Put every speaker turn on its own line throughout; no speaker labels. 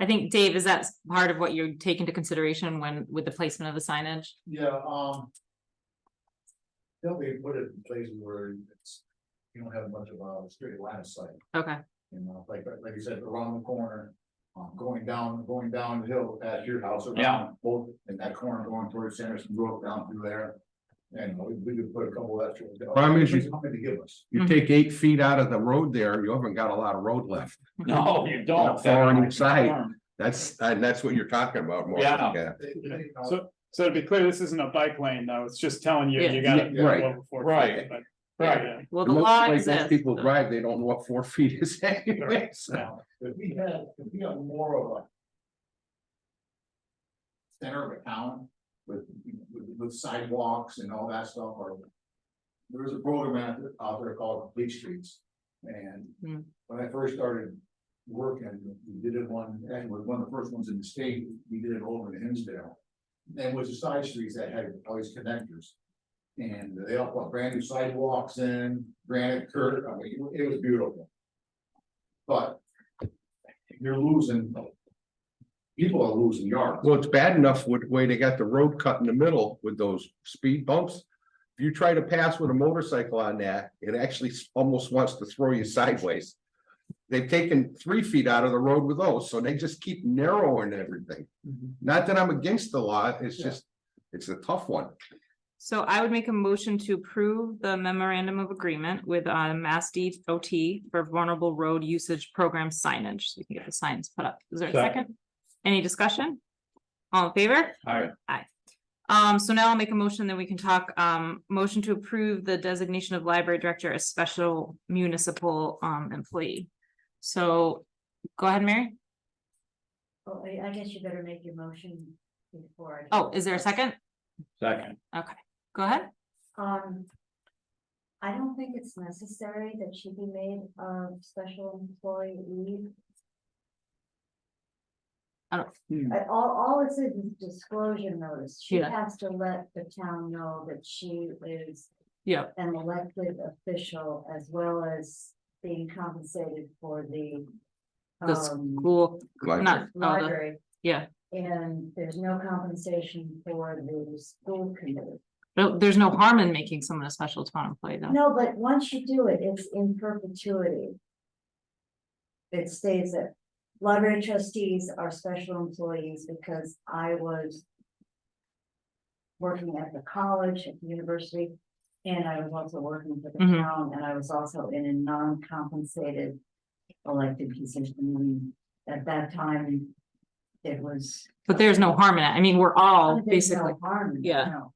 I think, Dave, is that part of what you take into consideration when, with the placement of the signage?
Yeah, um. They'll be put it in places where it's, you don't have much of a straight line of sight,
Okay,
you know, like, like you said, around the corner. Um, going down, going down the hill at your house
Yeah.
around both in that corner going towards Sanderson Road down through there. And we, we could put a couple extra.
Problem is you-
How many to give us?
You
Mhm.
take eight feet out of the road there, you haven't got a lot of road left.
No, you don't.
Foreign site. That's, and that's what you're talking about more.
Yeah.
They- they, you know,
So, so to be clear, this isn't a bike lane, though, it's just telling you,
Yeah.
you gotta.
Yeah, right.
go before-
Right.
but-
Right,
yeah.
well,
It
the
looks
law
like most
exists.
People drive, they don't know what four feet is anyway, so.
Now, if we had, if we had more of a. Center of a town with, with with sidewalks and all that stuff, or. There was a program out there- out there called Complete Streets, and
Hmm.
when I first started working, we did it one, and it was one of the first ones in the state, we did it over in Hinsdale. And it was the side streets that had all these connectors. And they all put brand new sidewalks in, granite curb, I mean, it was beautiful. But you're losing. People are losing yards.
Well, it's bad enough with the way they got the road cut in the middle with those speed bumps. If you try to pass with a motorcycle on that, it actually s- almost wants to throw you sideways. They've taken three feet out of the road with those, so they just keep narrowing everything. Not that I'm against the law, it's
Yeah.
just, it's a tough one.
So I would make a motion to approve the memorandum of agreement with uh Mass DOT for vulnerable road usage program signage. So we can get the signs put up. Is there a
Second.
second? Any discussion? All in favor?
Aye.
Aye. Um, so now I'll make a motion that we can talk, um, motion to approve the designation of library director as special municipal um employee. So go ahead, Mary.
Well, I, I guess you better make your motion before. I-
Oh, is there a second?
second,
Go ahead.
Um. I don't think it's necessary that she be made a special employee.
I don't-
Hmm.
But all, all it's a disclosure notice. She
Yeah.
has to let the town know that she is
Yeah,
an elected official as well as being compensated for the.
The
um,
cool.
Like,
Not, oh, the-
Library.
yeah.
And there's no compensation for the school committee.
no, there's no harm in making someone a special town employee though.
No, but once you do it, it's in perpetuity. It stays that library trustees are special employees because I was. Working at the college, at the university, and I was also working for the
Mhm.
town, and I was also in a non-compensated. Elected position, and at that time. It was.
But there's no harm in it. I mean, we're all
There's no
basically,
Harm. in it,
yeah.
no.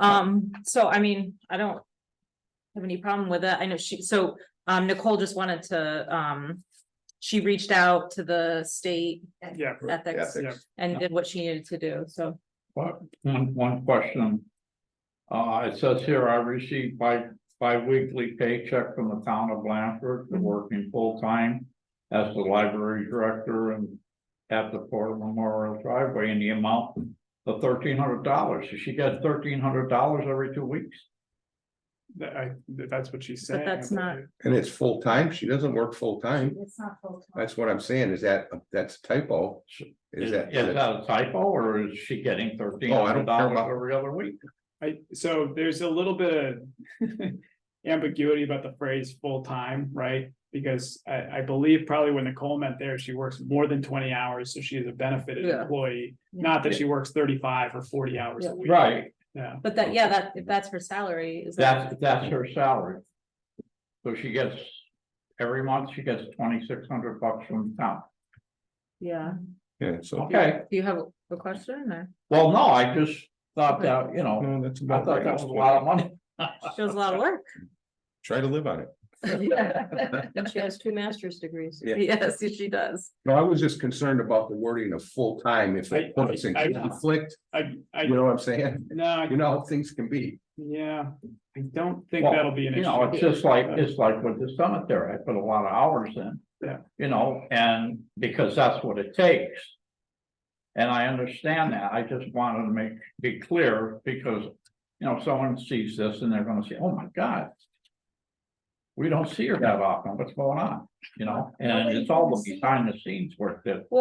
um, so I mean, I don't. Have any problem with it. I know she, so um Nicole just wanted to, um. She reached out to the state
Yeah.
ethics
Yeah.
and did what she needed to do, so.
but one, one question. Uh, it says here, I received bi bi-weekly paycheck from the town of Blanford for working full-time. As the library director and at the Fort Memorial driveway in the amount of thirteen hundred dollars, so she gets thirteen hundred dollars every two weeks.
That, I, that- that's what she's saying. I
that's not-
believe.
And it's full-time, she doesn't work full-time,
It's not full time.
that's what I'm saying, is that, that's typo? Is
Is
that? Oh,
is that a typo, or is she getting thirteen hundred
care
dollars
about-
every other week?
I, so there's a little bit of ambiguity about the phrase full-time, right? Because I, I believe probably when Nicole meant there, she works more than twenty hours, so she is a benefited
Yeah.
employee. Not that she works thirty-five or forty hours a week.
Right,
Yeah,
But that, yeah, that, if that's her salary, is that,
That's, that's her salary. So she gets, every month she gets twenty-six hundred bucks from the town.
yeah,
Yeah, so.
Okay,
do you have a question or?
well, no, I just thought that, you know,
No, that's
I
about
thought that
right.
was a lot of money.
She does a lot of work.
Try to live on it.
And she has two master's degrees.
Yeah.
Yes, she does.
No, I was just concerned about the wording of full-time, if it
I- I-
puts in
I-
conflict,
I, I,
you know what I'm saying?
no, I-
You know how things can be.
yeah, I don't think
Well,
that'll be an issue.
You know, it's just like, it's like with the cemetery, I put a lot of hours in.
Yeah.
You know, and because that's what it takes. And I understand that, I just wanted to make, be clear, because, you know, someone sees this and they're gonna say, oh my god. we don't see her that often, what's going on, you know, and it's all the behind the scenes work that